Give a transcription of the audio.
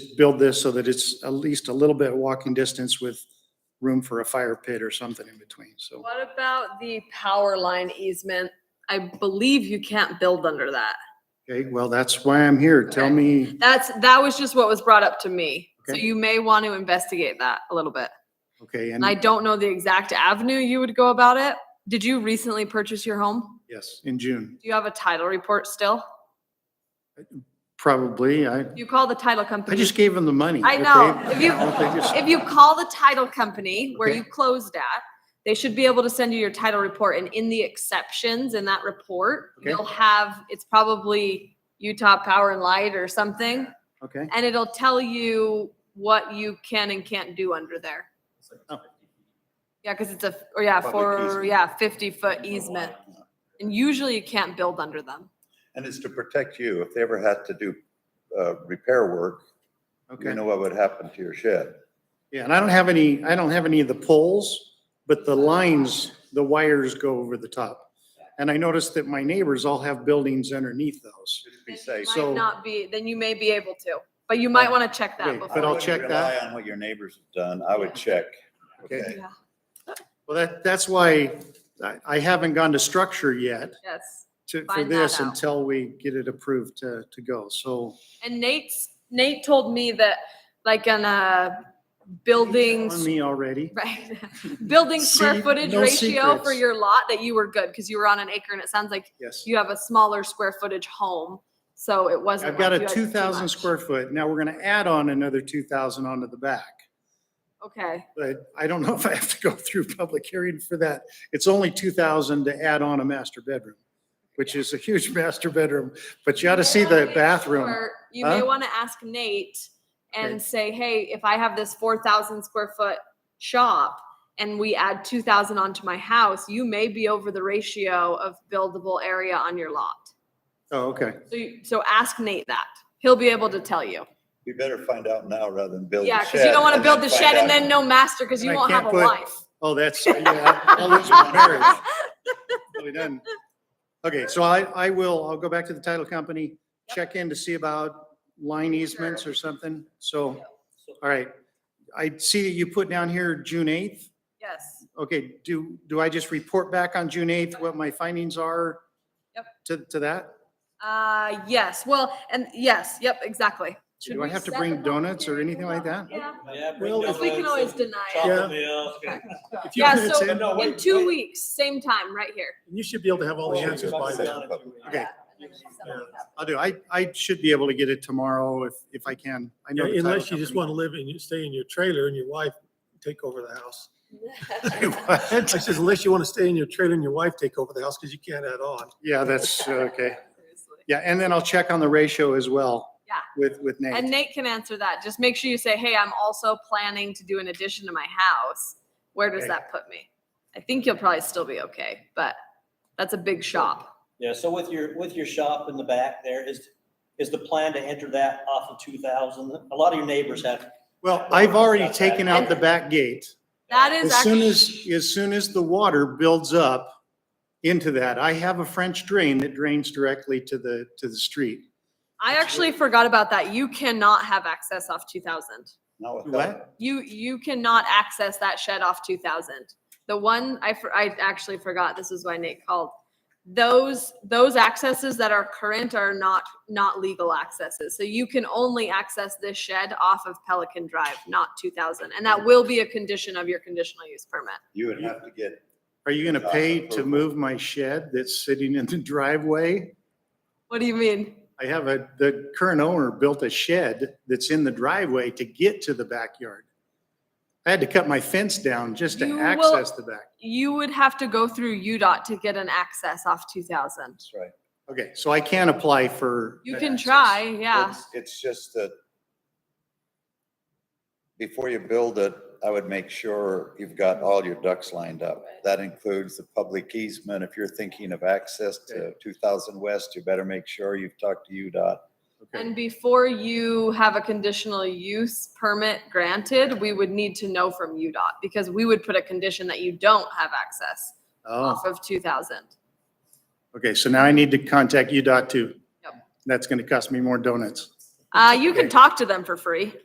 build this so that it's at least a little bit walking distance with room for a fire pit or something in between, so. What about the power line easement? I believe you can't build under that. Okay, well, that's why I'm here. Tell Okay. me, That's, that was just what was brought up to me. So Okay. you may want to investigate that a little bit. okay, And I and don't know the exact avenue you would go about it. Did you recently purchase your home? yes, in June, Do you have a title report still? probably. I, You call the title I company. just gave them the money. I okay? know. If you- Well, they just- If you call the title company where Okay. you closed at, they should be able to send you your title report and in the exceptions in that report, Okay. you'll have, it's probably Utah Power and Light or something. Okay, And it'll tell you what you can and can't do under there. Oh. Yeah, cause it's a, or yeah, Public for, easement. yeah, fifty foot easement. And usually you can't build under them. And it's to protect you. If they ever had to do uh, repair work, you okay. know what would happen to your shed. Yeah, and I don't have any, I don't have any of the poles, but the lines, the wires go over the top. And I noticed that my neighbors all have buildings underneath those. Just be Then you safe. So- Might not be, then you may be able to, but you might wanna check Okay, that but I before. I'll wouldn't check that. Rely on what your neighbors have done. I would check. Okay. Okay. Yeah, Well, that, that's why I, I haven't gone to structure yet Yes. to, for Find that this out. until we get it approved to, to go. So And Nate's, Nate told me that like on a on buildings, me already. right? Building square See, footage no ratio for secrets. your lot that you were good because you were on an acre and it sounds like Yes. you have a smaller square footage home. So it wasn't. I've got like a you had too two thousand much. square foot. Now we're going to add on another two thousand onto the back. Okay. But I don't know if I have to go through public hearing for that. It's only two thousand to add on a master bedroom, which is a huge master bedroom, but you ought to see the bathroom. Or You may Huh? want to ask Nate Okay. and say, hey, if I have this four thousand square foot shop and we add two thousand onto my house, you may be over the ratio of buildable area on your lot. Oh, okay. So, you- so ask Nate that. He'll be able to tell you. You better find out now rather than build the Yeah, shed. because you don't want to and build the find shed and out. then no master because you And I won't have a can't put- wife. Oh, that's, yeah, I'll lose my marriage. Really done. Okay, so I, I will, I'll go back to the title company, Yep. check in to see about line easements or something. So, all right. I see that you put down here June eighth. Yes, Okay, do, do I just report back on June eighth what my findings are? Yep. To, to that? uh, yes, well, and yes, yep, exactly. Should Do I we have to set the bring public donuts or hearing anything like that? Yeah, Yeah, Well, if bring donuts. we can always and deny it. chocolate milk. If you Yeah, put it so in- No, in wait, two wait. weeks, same time, right here. You should be able to have all the answers by then. Okay. Yeah. I'll do, I, I should be able to get it tomorrow if, if I can. I know the title Unless you just want to live and you stay in your trailer and your wife take over the house. company. I says unless you want to stay in your trailer and your wife take over the house because you can't add on. Yeah, that's, uh, okay. Yeah, and then I'll check on the ratio as well. Yeah. With, with And Nate. Nate can answer that. Just make sure you say, hey, I'm also planning to do an addition to my house. Where does Okay. that put me? I think you'll probably still be okay, but that's a big shop. Yeah, so with your, with your shop in the back there, is, is the plan to enter that off of two thousand? A lot of your neighbors have. Well, I've already taken out the back gate. That is As soon actually, as, as soon as the water builds up into that, I have a French drain that drains directly to the, to the street. I actually forgot about that. You cannot have access off two thousand. Not without- What? You, you cannot access that shed off two thousand. The one, I, for- I actually forgot, this is why Nate called. Those, those accesses that are current are not, not legal accesses. So you can only access this shed off of Pelican Drive, not two thousand. And that will be a condition of your conditional use permit. You would have to get, Are you gonna pay to move my shed that's sitting in the driveway? What do you mean? I have a, the current owner built a shed that's in the driveway to get to the backyard. I had to cut my fence down just You to will- access the back. You would have to go through UDOT to get an access off two thousand. that's right. Okay, so I can apply for. You that can access. try, yeah. It's- It's just that before you build it, I would make sure you've got all your ducks lined up. That includes the public easement. If you're thinking of access to 2000 West, you better make sure you've talked to UDOT. Okay. And before you have a conditional use permit granted, we would need to know from UDOT because we would put a condition that you don't have access Oh, off of two thousand. okay, so now I need to contact UDOT too. Yep. That's gonna cost me more donuts. Uh, you can talk to them for free.